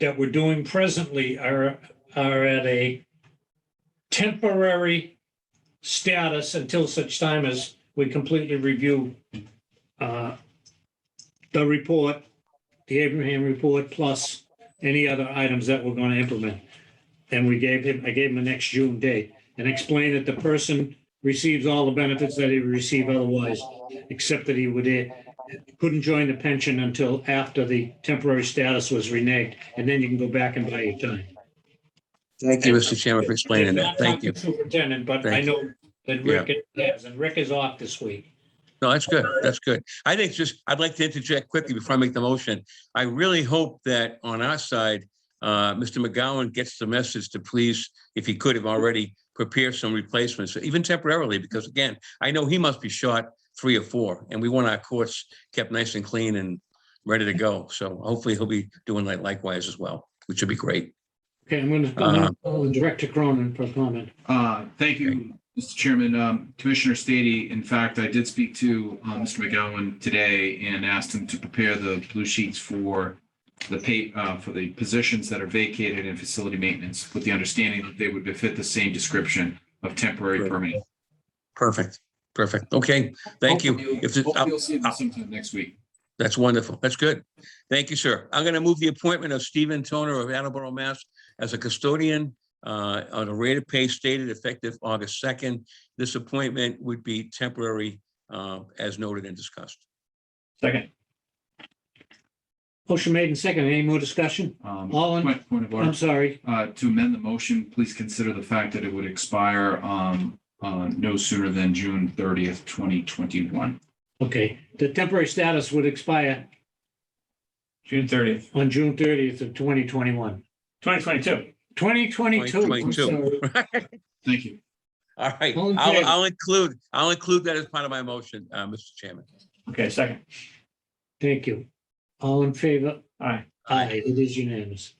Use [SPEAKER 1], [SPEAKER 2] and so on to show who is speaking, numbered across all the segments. [SPEAKER 1] that we're doing presently are, are at a temporary status until such time as we completely review uh, the report, the Abraham report, plus any other items that we're going to implement. And we gave him, I gave him the next June date and explained that the person receives all the benefits that he would receive otherwise, except that he would, eh, couldn't join the pension until after the temporary status was reneged, and then you can go back and buy your time.
[SPEAKER 2] Thank you, Mr. Chairman, for explaining
[SPEAKER 1] Did
[SPEAKER 2] that.
[SPEAKER 1] not
[SPEAKER 2] Thank
[SPEAKER 1] talk to
[SPEAKER 2] you.
[SPEAKER 1] Superintendent, but I
[SPEAKER 2] Thank you.
[SPEAKER 1] know that Rick is, and Rick is off this week.
[SPEAKER 2] No, that's good. That's good. I think just, I'd like to interject quickly before I make the motion. I really hope that on our side, uh, Mr. McGowan gets the message to please, if he could have already, prepare some replacements, even temporarily, because again, I know he must be shot three or four, and we want our courts kept nice and clean and ready to go. So hopefully he'll be doing that likewise as well, which would be great.
[SPEAKER 1] Okay, I'm gonna, I'm
[SPEAKER 2] Uh-huh.
[SPEAKER 1] gonna call Director Cronin for comment.
[SPEAKER 3] Uh, Thank you, Mr. Chairman. Um, Commissioner Stady, in fact, I did speak to uh, Mr. McGowan today and asked him to prepare the blue sheets for the pay, uh, for the positions that are vacated in facility maintenance with the understanding that they would befit the same description of temporary
[SPEAKER 2] Right.
[SPEAKER 3] permanent.
[SPEAKER 2] Perfect, perfect. Okay, thank you. If uh,
[SPEAKER 3] Hopefully
[SPEAKER 2] there's-
[SPEAKER 3] you'll see them sometime next week.
[SPEAKER 2] That's wonderful. That's good. Thank you, sir. I'm going to move the appointment of Stephen Toner of Attleboro, Mass. as a custodian uh, on a rate of pay stated effective August 2nd. This appointment would be temporary uh, as noted and discussed.
[SPEAKER 1] Second. Motion made and second. Any more discussion?
[SPEAKER 3] Um,
[SPEAKER 1] All in-
[SPEAKER 3] Point point of order.
[SPEAKER 1] I'm sorry.
[SPEAKER 3] Uh, to amend the motion, please consider the fact that it would expire, um, uh, no sooner than June thirtieth, twenty twenty-one.
[SPEAKER 1] Okay, the temporary status would expire
[SPEAKER 4] June thirtieth,
[SPEAKER 1] on June thirtieth of twenty twenty-one.
[SPEAKER 4] twenty twenty-two.
[SPEAKER 1] Twenty twenty-two.
[SPEAKER 2] 2022.
[SPEAKER 3] Thank you.
[SPEAKER 2] All right,
[SPEAKER 1] All in
[SPEAKER 2] I'll
[SPEAKER 1] favor?
[SPEAKER 2] I'll include, I'll include that as part of my motion, uh, Mr. Chairman.
[SPEAKER 4] Okay, second.
[SPEAKER 1] Thank you. All in favor?
[SPEAKER 4] All right.
[SPEAKER 1] Aye, it is unanimous.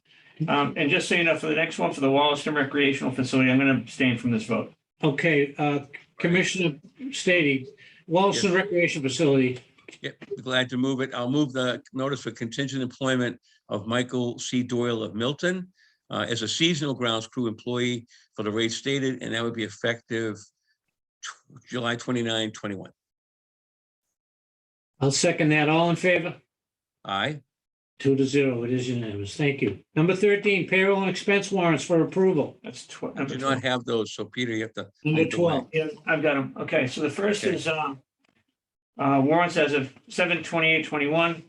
[SPEAKER 4] Um, and just so you know, for the next one, for the Wollaston recreational facility, I'm going to abstain from this vote.
[SPEAKER 1] Okay, uh, Commissioner Stady, Wallaston Recreation Facility,
[SPEAKER 2] Yeah, glad to move it. I'll move the notice for contingent employment of Michael C. Doyle of Milton uh, as a seasonal grounds crew employee for the rate stated, and that would be effective tw- July 29, 21.
[SPEAKER 1] I'll second that. All in favor?
[SPEAKER 2] Aye,
[SPEAKER 1] Two to zero, it is unanimous. Thank you. Number thirteen, payroll and expense warrants for approval.
[SPEAKER 4] That's tw-
[SPEAKER 2] I
[SPEAKER 4] number
[SPEAKER 2] do
[SPEAKER 4] 12.
[SPEAKER 2] not have those, so Peter, you have to,
[SPEAKER 1] Number
[SPEAKER 2] Either
[SPEAKER 1] twelve,
[SPEAKER 4] Yeah, I've got them. Okay, so the first
[SPEAKER 2] Okay.
[SPEAKER 4] is, um, uh, warrants as of seven twenty-eight twenty-one,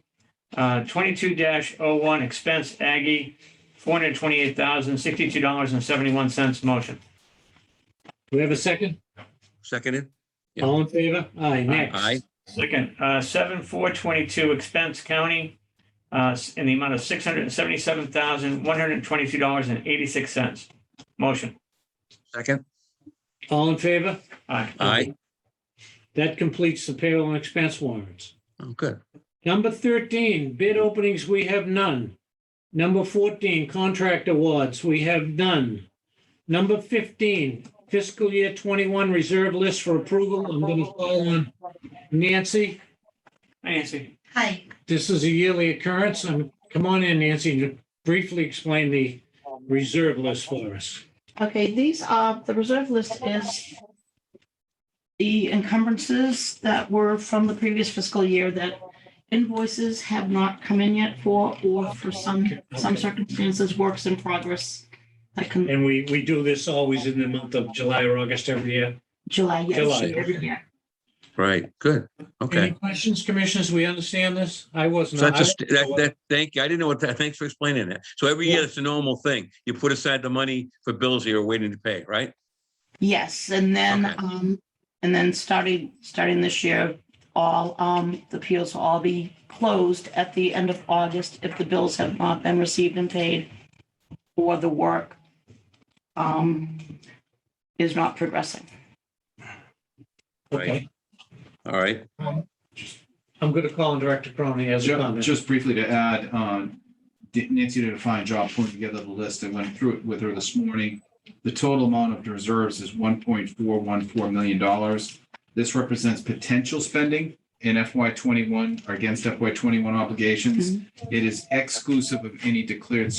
[SPEAKER 4] uh, twenty-two dash oh one expense Aggie, four hundred twenty-eight thousand, sixty-two dollars and seventy-one cents motion.
[SPEAKER 1] do we have a second?
[SPEAKER 2] seconded? Yeah.
[SPEAKER 1] All in favor? Aye,
[SPEAKER 2] Aye.
[SPEAKER 1] next.
[SPEAKER 4] Second, uh, seven four twenty-two expense county, uh, s- in the amount of six hundred and seventy-seven thousand, one hundred and twenty-two dollars and eighty-six cents. Motion.
[SPEAKER 2] Second?
[SPEAKER 1] All in favor?
[SPEAKER 4] Aye.
[SPEAKER 2] Aye,
[SPEAKER 1] That completes the payroll and expense warrants.
[SPEAKER 2] Oh, good.
[SPEAKER 1] Number thirteen, bid openings, we have none. Number fourteen, contract awards, we have none. Number fifteen, fiscal year twenty-one reserve list for approval. I'm going to call on Nancy.
[SPEAKER 4] Nancy.
[SPEAKER 5] Hi,
[SPEAKER 1] This is a yearly occurrence. And come on in, Nancy, to briefly explain the reserve list for us.
[SPEAKER 5] okay, these are, the reserve list is the encumbrances that were from the previous fiscal year that invoices have not come in yet for, or for some, some circumstances, works in progress that can,
[SPEAKER 1] And we, we do this always in the month of July or August every year.
[SPEAKER 5] July, yes.
[SPEAKER 1] July, okay.
[SPEAKER 5] yeah.
[SPEAKER 2] Right, good,
[SPEAKER 1] Any
[SPEAKER 2] okay.
[SPEAKER 1] questions, commissioners? We understand this? I
[SPEAKER 2] So
[SPEAKER 1] wasn't.
[SPEAKER 2] that's just, that, that, thank you, I didn't know what that, thanks for explaining that. So every year,
[SPEAKER 1] Yeah.
[SPEAKER 2] it's a normal thing. You put aside the money for bills that you're waiting to pay, right?
[SPEAKER 5] Yes, and then,
[SPEAKER 2] Okay.
[SPEAKER 5] um, and then starting, starting this year, all, um, the appeals will all be closed at the end of August if the bills have not been received and paid or the work, um, is not progressing.
[SPEAKER 1] Okay.
[SPEAKER 2] All right,
[SPEAKER 1] I'm going to call on Director Cronin as a
[SPEAKER 3] Ju-
[SPEAKER 1] comment.
[SPEAKER 3] Just briefly to add, um, Di- Nancy did a fine job putting together the list. I went through it with her this morning. The total amount of reserves is one point four one four million dollars. This represents potential spending in FY twenty-one or against FY twenty-one obligations. It is exclusive of any declared